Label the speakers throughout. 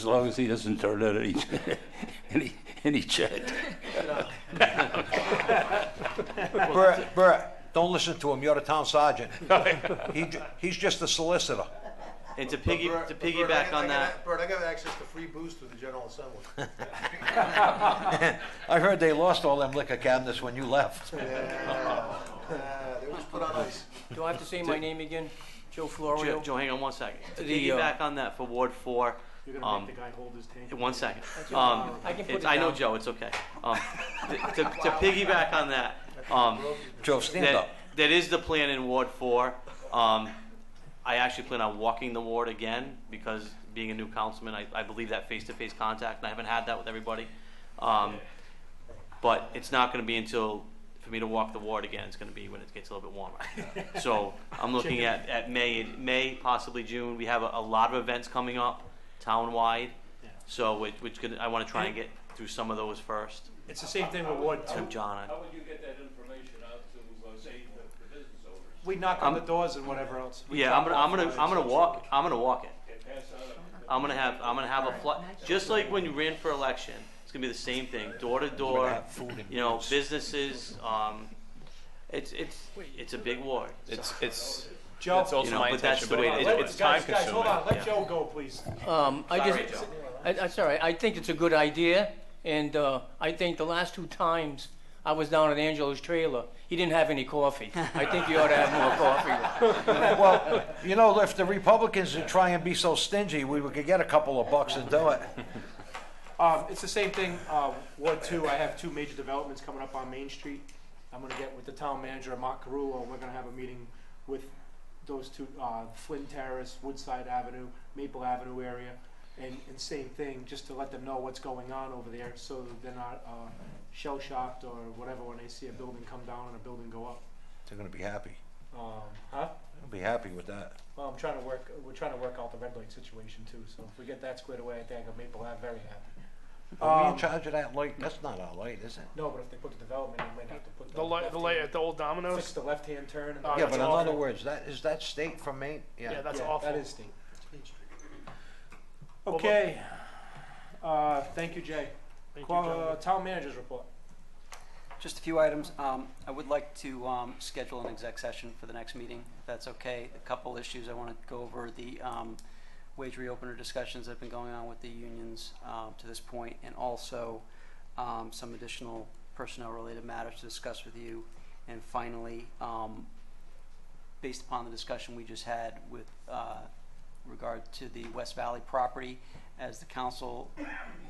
Speaker 1: As long as he doesn't turn out any, any, any chat.
Speaker 2: Brett, Brett, don't listen to him, you're the town sergeant. He, ju- he's just a solicitor.
Speaker 3: And to piggy
Speaker 4: Bert-
Speaker 3: to
Speaker 4: but Bert, I
Speaker 3: piggyback
Speaker 4: got- I
Speaker 3: on
Speaker 4: got
Speaker 3: that,
Speaker 4: a- Bert, I got access to free booze through the General Assembly.
Speaker 2: I heard they lost all them liquor cabinets when you left.
Speaker 4: Uh, They were just put on ice.
Speaker 5: Do I have to say my name again? Joe
Speaker 3: Joe,
Speaker 5: Florio?
Speaker 3: Joe, hang on one second. To
Speaker 5: The, uh,
Speaker 3: piggyback on that for Ward Four,
Speaker 6: You're
Speaker 3: um,
Speaker 6: gonna make the guy hold his tank.
Speaker 3: one second.
Speaker 5: That's
Speaker 3: Um,
Speaker 5: I can put
Speaker 3: it's- I
Speaker 5: it
Speaker 3: know,
Speaker 5: down.
Speaker 3: Joe, it's okay. Um, to, to, to piggyback on that, um,
Speaker 2: Joe, stand
Speaker 3: that,
Speaker 2: up.
Speaker 3: that is the plan in Ward Four. Um, I actually plan on walking the ward again because being a new councilman, I, I believe that face-to-face contact, and I haven't had that with everybody. Um, but it's not gonna be until, for me to walk the ward again, it's gonna be when it gets a little bit warmer. So I'm looking at, at May, May, possibly June. We have a, a lot of events coming up town-wide.
Speaker 6: Yeah.
Speaker 3: So which, which could, I wanna try and get through some of those first.
Speaker 6: It's the same thing with Ward
Speaker 3: So
Speaker 6: Two.
Speaker 3: John, I-
Speaker 7: How would you get that information out to, uh, say, the the business owners?
Speaker 6: We knock on the
Speaker 3: I'm-
Speaker 6: doors and whatever else. We
Speaker 3: yeah, I'm
Speaker 6: drop
Speaker 3: gonna, I'm
Speaker 6: off
Speaker 3: gonna,
Speaker 6: flyers.
Speaker 3: I'm gonna walk, I'm gonna walk it.
Speaker 7: They pass out a
Speaker 3: I'm gonna have I'm gonna have a fly, just like when you ran for election. It's gonna be the same thing, door to door. You know, businesses. Um, it's it's it's a big war.
Speaker 8: It's, it's,
Speaker 6: Joe,
Speaker 8: that's also
Speaker 3: You know,
Speaker 8: my
Speaker 3: but that's
Speaker 8: intention,
Speaker 3: the
Speaker 8: but
Speaker 3: way
Speaker 8: it-
Speaker 3: it is.
Speaker 8: it's time
Speaker 6: Guys, guys, hold on,
Speaker 8: consuming.
Speaker 6: let Joe go, please.
Speaker 5: Um, I
Speaker 3: Sorry,
Speaker 5: just,
Speaker 3: Joe.
Speaker 5: I- that's all right. I think it's a good idea, and uh, I think the last two times I was down at Angelo's trailer, he didn't have any coffee. I think you ought to have more coffee.
Speaker 2: Well, you know, if the Republicans would try and be so stingy, we could get a couple of bucks and do it.
Speaker 6: Um, it's the same thing, uh, Ward Two, I have two major developments coming up on Main Street. I'm gonna get with the town manager, Mark Carullo, and we're gonna have a meeting with those two, uh, Flynn Terrace, Woodside Avenue, Maple Avenue area. And, and same thing, just to let them know what's going on over there, so that they're not, uh, shell shocked or whatever when they see a building come down and a building go up.
Speaker 2: They're gonna be happy.
Speaker 6: Um, huh?
Speaker 2: They'll be happy with that.
Speaker 6: Well, I'm trying to work, we're trying to work out the red light situation too, so if we get that squared away, I think I'm Maple Ave very happy.
Speaker 2: Are we
Speaker 6: Um,
Speaker 2: in charge of that light? That's not our light, is it?
Speaker 6: No, but if they put the development, in, they might have to put the.
Speaker 9: The light, the light
Speaker 6: left-hand-
Speaker 9: at the old
Speaker 6: Fix
Speaker 9: Domino's.
Speaker 6: the left-hand turn and.
Speaker 9: Uh,
Speaker 2: Yeah,
Speaker 9: that's
Speaker 2: but in
Speaker 9: awful.
Speaker 2: other words, that, is that state from Maine?
Speaker 9: Yeah, that's
Speaker 6: Yeah,
Speaker 9: awful.
Speaker 6: That is steep. Okay, uh, thank you, Jay.
Speaker 9: Thank you,
Speaker 6: Qua- uh,
Speaker 9: gentlemen.
Speaker 6: town manager's report.
Speaker 10: Just a few items. Um, I would like to um, schedule an exec session for the next meeting, if that's okay. A couple issues I want to go over, the um, wage reopener discussions that have been going on with the unions um, to this point, and also um, some additional personnel-related matters to discuss with you. And finally, um, based upon the discussion we just had with uh, regard to the West Valley property, as the council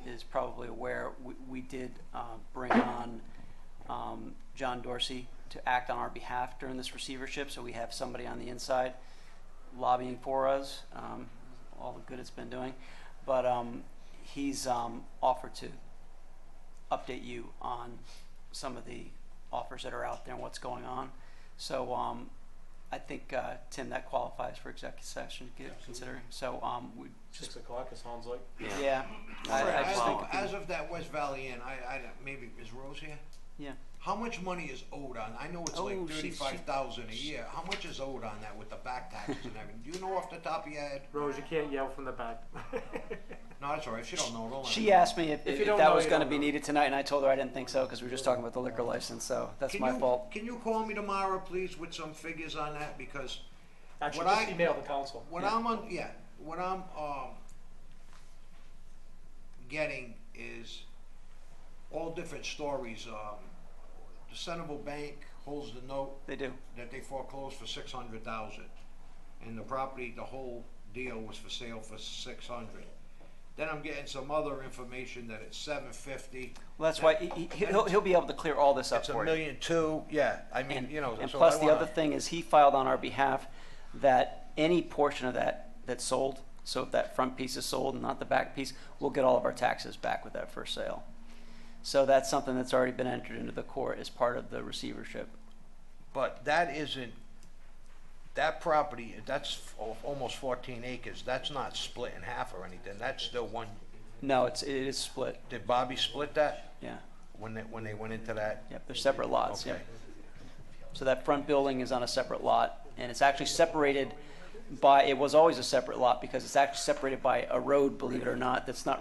Speaker 10: is probably aware, we- we did uh, bring on um, John Dorsey to act on our behalf during this receivership, so we have somebody on the inside lobbying for us, um, all the good it's been doing. But um, he's um, offered to update you on some of the offers that are out there and what's going on. So um, I think, uh, Tim, that qualifies for executive session, get- considering. So um, we just,
Speaker 6: Six o'clock, it sounds like.
Speaker 10: yeah, I I just think,
Speaker 2: As of that West Valley Inn, I, I, don't- maybe, is Rose here?
Speaker 10: yeah.
Speaker 2: How much money is owed on, I know it's like
Speaker 10: Oh, she- she-
Speaker 2: thirty-five thousand a year, how much is owed on that with the back taxes and everything? Do you know off the top of your head?
Speaker 6: Rose, you can't yell from the back.
Speaker 2: No, that's all right, if you don't know, don't. worry.
Speaker 10: She asked me if,
Speaker 6: If
Speaker 10: if
Speaker 6: you don't
Speaker 10: that
Speaker 6: know,
Speaker 10: was
Speaker 6: you
Speaker 10: gonna
Speaker 6: don't
Speaker 10: be
Speaker 6: know.
Speaker 10: needed tonight, and I told her I didn't think so, because we were just talking about the liquor license, so that's
Speaker 2: Can
Speaker 10: my
Speaker 2: you-
Speaker 10: fault.
Speaker 2: Can you call me tomorrow, please, with some figures on that, because
Speaker 6: Actually,
Speaker 2: What
Speaker 6: just
Speaker 2: I-
Speaker 6: email the council.
Speaker 2: what I'm on, yeah, what I'm, um, getting is all different stories, um, the Centerville Bank holds the note
Speaker 10: They do.
Speaker 2: that they foreclosed for six hundred thousand. And the property, the whole deal was for sale for six hundred. Then I'm getting some other information that it's seven fifty.
Speaker 10: Well, that's why, he, he, he'll, he'll be able to clear all this up
Speaker 2: It's a
Speaker 10: for you.
Speaker 2: million two, yeah, I mean,
Speaker 10: And,
Speaker 2: you know,
Speaker 10: and
Speaker 2: so
Speaker 10: plus,
Speaker 2: I
Speaker 10: the
Speaker 2: wanna-
Speaker 10: other thing is, he filed on our behalf that any portion of that that's sold, so if that front piece is sold and not the back piece, we'll get all of our taxes back with that first sale. So that's something that's already been entered into the court as part of the receivership.
Speaker 2: But that isn't, that property, that's al- almost fourteen acres, that's not split in half or anything, that's still one,
Speaker 10: No, it's, it is split,
Speaker 2: did Bobby split that
Speaker 10: yeah.
Speaker 2: when they, when they went into that?
Speaker 10: Yep, they're separate lots,
Speaker 2: Okay.
Speaker 10: yep. So that front building is on a separate lot, and it's actually separated by, it was always a separate lot because it's actually separated by a road, believe it or not, that's not